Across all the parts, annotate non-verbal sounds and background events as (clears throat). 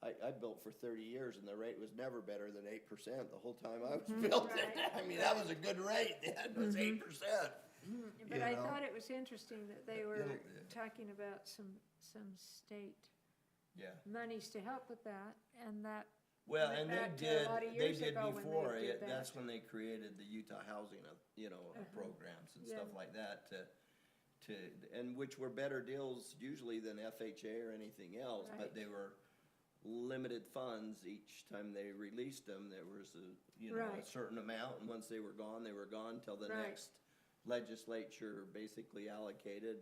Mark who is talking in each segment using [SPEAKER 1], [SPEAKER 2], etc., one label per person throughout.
[SPEAKER 1] I, I built for thirty years and the rate was never better than eight percent the whole time I was building.
[SPEAKER 2] Right.
[SPEAKER 1] I mean, that was a good rate, (laughs) then, was eight percent.
[SPEAKER 2] But
[SPEAKER 1] Mm-hmm. you
[SPEAKER 2] I
[SPEAKER 1] know.
[SPEAKER 2] thought it was interesting that they were
[SPEAKER 1] Little bit.
[SPEAKER 2] talking about some, some state
[SPEAKER 1] Yeah.
[SPEAKER 2] monies to help with that, and that,
[SPEAKER 1] Well,
[SPEAKER 2] Went
[SPEAKER 1] and they
[SPEAKER 2] back to a
[SPEAKER 1] did,
[SPEAKER 2] lot of
[SPEAKER 1] they
[SPEAKER 2] years
[SPEAKER 1] did
[SPEAKER 2] ago when they
[SPEAKER 1] before,
[SPEAKER 2] did
[SPEAKER 1] it-
[SPEAKER 2] that. Uh-huh.
[SPEAKER 1] that's when they created the Utah housing, uh, you know, uh, programs and stuff
[SPEAKER 2] Yeah.
[SPEAKER 1] like that to, to, and which were better deals usually than FHA or anything else, but
[SPEAKER 2] Right.
[SPEAKER 1] they were limited funds each time they released them, there was a, you know, a
[SPEAKER 2] Right.
[SPEAKER 1] certain amount, and once they were gone, they were gone till the
[SPEAKER 2] Right.
[SPEAKER 1] next legislature basically allocated.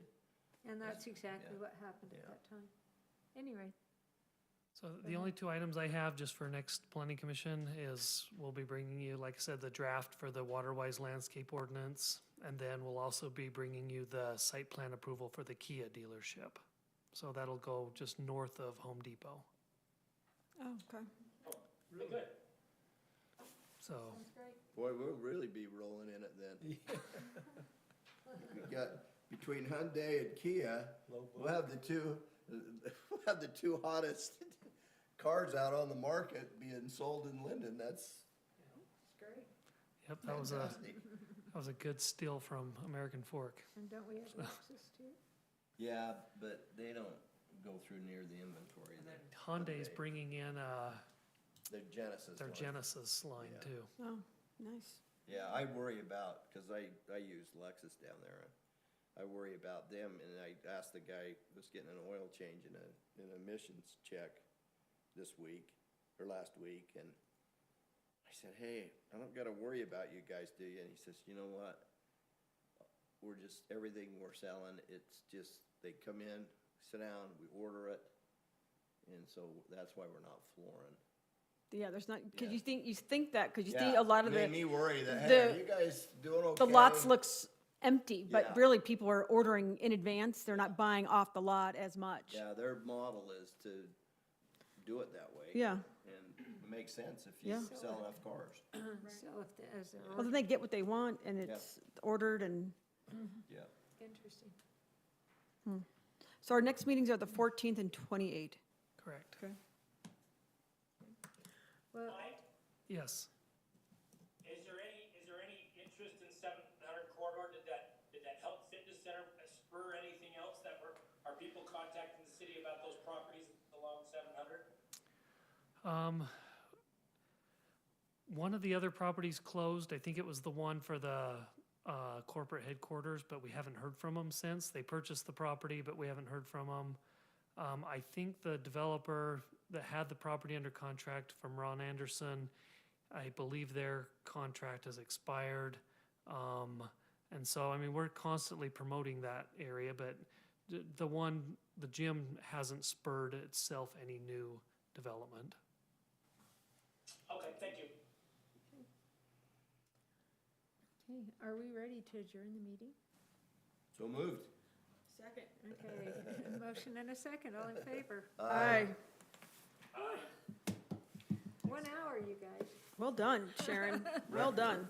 [SPEAKER 2] and that's exactly
[SPEAKER 1] Yeah.
[SPEAKER 2] what happened at
[SPEAKER 1] Yeah.
[SPEAKER 2] that time. Anyway,
[SPEAKER 3] So
[SPEAKER 1] Mm-hmm.
[SPEAKER 3] the only two items I have just for next planning commission is we'll be bringing you, like I said, the draft for the waterwise landscape ordinance. And then we'll also be bringing you the site plan approval for the Kia dealership. So that'll go just north of Home Depot.
[SPEAKER 4] Oh, okay.
[SPEAKER 1] Oh.
[SPEAKER 3] So
[SPEAKER 2] sounds great.
[SPEAKER 1] Boy, we'll really be rolling in it then. (laughs) We got, between Hyundai and Kia, we'll have the two, (laughs) we'll have the two hottest (laughs) cars out on the market being sold in Linden, that's
[SPEAKER 2] It's great.
[SPEAKER 3] yep, that was a
[SPEAKER 1] fantastic.
[SPEAKER 3] that was a good steal from American Fork.
[SPEAKER 2] And don't we
[SPEAKER 1] (laughs)
[SPEAKER 2] have access to it? (clears throat)
[SPEAKER 1] Yeah, but they don't go through near the inventory there.
[SPEAKER 3] Hyundai's bringing in uh,
[SPEAKER 1] Their Genesis.
[SPEAKER 3] their
[SPEAKER 1] line.
[SPEAKER 3] Genesis line
[SPEAKER 1] Yeah.
[SPEAKER 3] too.
[SPEAKER 4] Oh, nice.
[SPEAKER 1] Yeah, I worry about, cause I, I use Lexus down there. I worry about them and I asked the guy who's getting an oil change and a, an emissions check this week or last week and I said, hey, I don't gotta worry about you guys, do you? And he says, you know what? We're just, everything we're selling, it's just, they come in, sit down, we order it. And so that's why we're not flooring.
[SPEAKER 4] Yeah, there's not,
[SPEAKER 1] Yeah.
[SPEAKER 4] because you think, you think that, because you
[SPEAKER 1] Yeah,
[SPEAKER 4] think a lot of
[SPEAKER 1] made
[SPEAKER 4] the,
[SPEAKER 1] me worry that, hey,
[SPEAKER 4] the-
[SPEAKER 1] are you guys doing okay?
[SPEAKER 4] the lots looks empty,
[SPEAKER 1] Yeah.
[SPEAKER 4] but really people are ordering in advance. They're not buying off the lot as much.
[SPEAKER 1] Yeah, their model is to do it that way.
[SPEAKER 4] Yeah.
[SPEAKER 1] And it makes sense if you
[SPEAKER 4] Yeah.
[SPEAKER 1] sell enough cars.
[SPEAKER 2] So if, the- as they're
[SPEAKER 4] Well, then they get what they want and it's ordered and,
[SPEAKER 1] Yeah.
[SPEAKER 2] (laughs) interesting.
[SPEAKER 4] so our next meetings are the fourteenth and twenty-eighth.
[SPEAKER 3] Correct.
[SPEAKER 4] Okay.
[SPEAKER 2] Well,
[SPEAKER 5] Mike,
[SPEAKER 3] Yes.
[SPEAKER 5] is there any, is there any interest in seven hundred corridor? Did that, did that help fitness center spur anything else that were, are people contacting the city about those properties along seven hundred?
[SPEAKER 3] Um, One of the other properties closed. I think it was the one for the uh, corporate headquarters, but we haven't heard from them since. They purchased the property, but we haven't heard from them. Um, I think the developer that had the property under contract from Ron Anderson, I believe their contract has expired. Um, and so, I mean, we're constantly promoting that area, but the, the one, the gym hasn't spurred itself any new development.
[SPEAKER 5] Okay, thank you.
[SPEAKER 2] okay, are we ready to adjourn the meeting?
[SPEAKER 1] So moved.
[SPEAKER 4] Second.
[SPEAKER 1] (laughs)
[SPEAKER 2] Okay, motion and a second, all in favor.
[SPEAKER 1] Uh,
[SPEAKER 4] Aye.
[SPEAKER 2] One hour, you guys.
[SPEAKER 1] (laughs)
[SPEAKER 4] Well done, Sharon. Well done.